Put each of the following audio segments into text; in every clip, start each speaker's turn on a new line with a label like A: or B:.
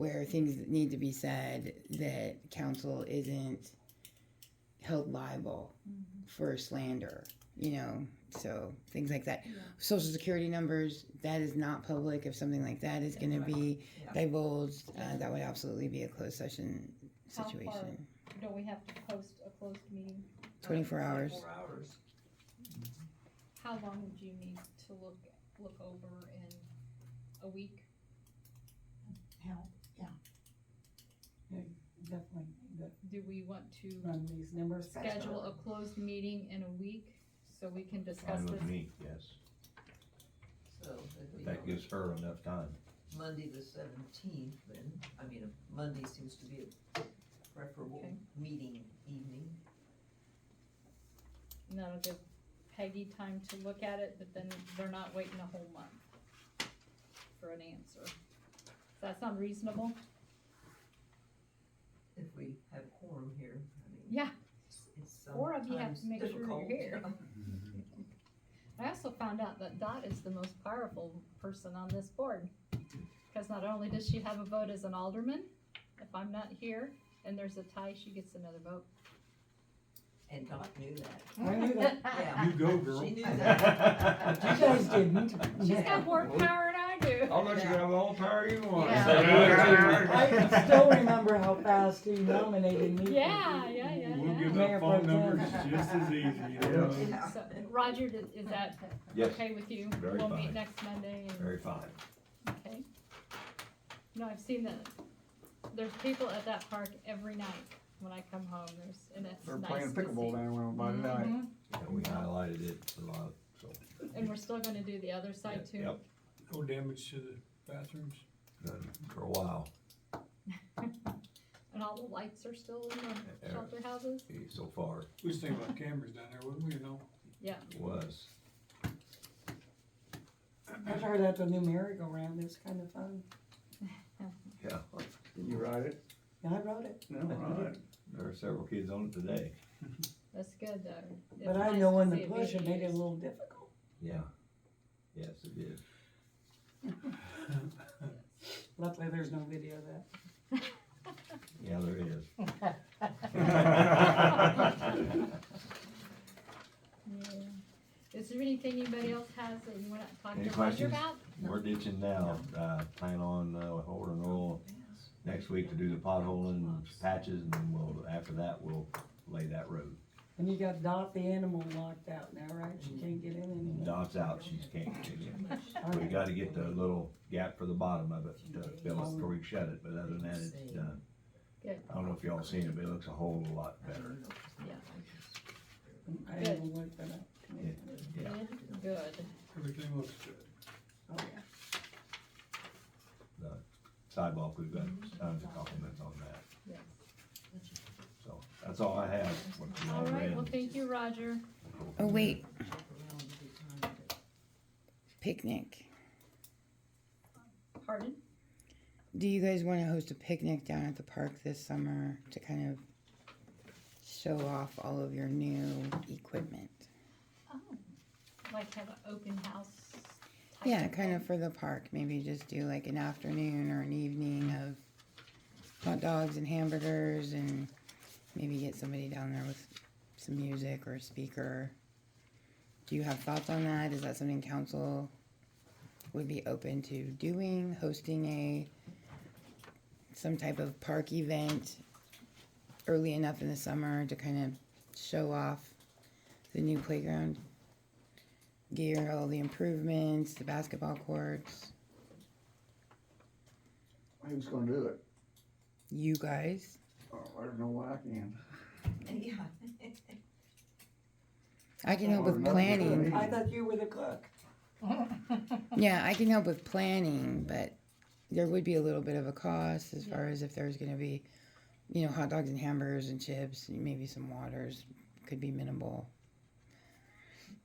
A: where things that need to be said that council isn't held liable
B: Mm-hmm.
A: for slander, you know, so things like that. Social security numbers, that is not public. If something like that is gonna be
C: Yeah.
A: divulged, uh, that would absolutely be a closed session
B: How far?
A: situation.
B: Don't we have to post a closed meeting?
A: Twenty-four hours.
C: Four hours.
B: How long would you need to look, look over in a week?
D: help, yeah. Yeah, Definitely, that
B: Do we want to
D: run these numbers.
B: schedule a closed meeting in a week so we can discuss
E: Fine
B: this?
E: with me, yes.
C: So it'd
E: But
C: be
E: that gives her enough time.
C: Monday the seventeenth then, I mean, if Monday seems to be a preferable
B: Okay.
C: meeting evening.
B: And that'll give Peggy time to look at it, but then they're not waiting a whole month for an answer. Does that sound reasonable?
C: If we have quorum here, I mean.
B: Yeah.
C: it's- It's
B: Four of you have to
C: sometimes
B: make sure you're
C: difficult.
B: here. I also found out that Dot is the most powerful person on this board. Because not only does she have a vote as an alderman, if I'm not here and there's a tie, she gets another vote.
C: And Doc knew that.
D: I knew that.
E: You go,
C: girl. She knew that.
D: You guys didn't.
B: She's got more power than I do.
E: I'll let you have all the power you want.
B: Yeah.
D: I can still remember how fast he nominated me. for
B: Yeah, yeah, yeah,
F: We'll give
B: yeah.
D: Mayor
F: up phone
D: Pro Tem.
F: numbers just as easy, you know? what I mean?
C: Yeah.
B: So, Roger, is is that
E: Yes,
B: okay with you?
E: Very
B: We'll meet
E: fine.
B: next Monday and.
E: very fine.
B: Okay. No, I've seen that. There's people at that park every night when I come home. There's, and that's
F: They're
B: nice
F: playing
B: to
F: pickleball
B: see.
F: down around by tonight.
B: Mhm.
E: Yeah, we highlighted it a lot, so.
B: And we're still gonna do the other side too.
E: Yep,
F: No damage to the bathrooms?
E: done for a while.
B: And all the lights are still in the
E: Yeah.
B: shelter houses.
E: Eh, So far,
F: We was thinking about cameras down there, wouldn't we, you know?
E: it was.
D: I heard that the new merry-go-round is kind of fun.
E: Yeah,
F: Did you ride it?
D: Yeah, I wrote it,
F: No, I didn't.
E: there are several kids on it today.
B: That's good though. It's
D: but I
B: nice
D: know when
B: to
D: to
B: see
D: push it
B: being
D: made it a
B: used.
D: little difficult.
E: Yeah. Yes, it is.
D: Luckily, there's no video of that.
E: Yeah, there is.
B: Yeah. Is there anything anybody else has that you wanna talk
E: Any
B: to Roger
E: questions?
B: about?
E: We're ditching now, uh, plan on, uh, holding oil next week to do the potholing patches, and then we'll, after that, we'll lay that road.
D: And you got Dot the animal locked out now, right? She can't get in anymore.
E: Dot's out, she's can't, we
D: Okay.
E: gotta get the little gap for the bottom of it, to fill it before we shut it, but other than that, it's done.
B: Good.
E: I don't know if y'all seen it, but it looks a whole lot better,
B: Yeah.
D: I haven't looked that up.
E: yeah.
B: Good, Good.
F: Everything looks good.
D: Oh, yeah.
E: Sidewalk, we've got tons of compliments on that,
B: Mm-hmm. Yes.
E: so, that's all I have. What you
B: All right,
E: read.
B: well, thank you, Roger.
A: Oh, wait, picnic.
B: Pardon?
A: Do you guys wanna host a picnic down at the park this summer to kind of show off all of your new equipment?
B: Oh, like have an open house? type
A: Yeah, kind of
B: thing?
A: for the park. Maybe just do like an afternoon or an evening of hot dogs and hamburgers and maybe get somebody down there with some music or a speaker. Do you have thoughts on that? Is that something council would be open to doing, hosting a some type of park event early enough in the summer to kind of show off the new playground? gear, all the improvements, the basketball courts.
F: Who's gonna do it?
A: You guys,
F: Oh, I don't know what I can.
C: Yeah.
A: I can help
F: Oh,
A: with
F: not
A: planning.
F: really.
D: I thought you were the cook.
A: Yeah, I can help with planning, but there would be a little bit of a cost as far as if there's going to be, you know, hot dogs and hamburgers and chips, and maybe some waters could be minimal.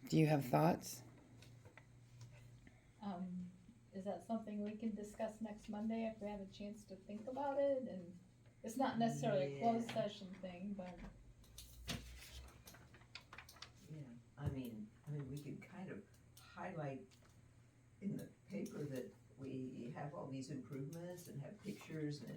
A: Do you have thoughts?
B: Um, is that something we can discuss next Monday if we have a chance to think about it and it's not necessarily a closed
C: Yeah.
B: session thing, but
C: Yeah, I mean, I mean, we could kind of highlight in the paper that we we have all these improvements and have pictures and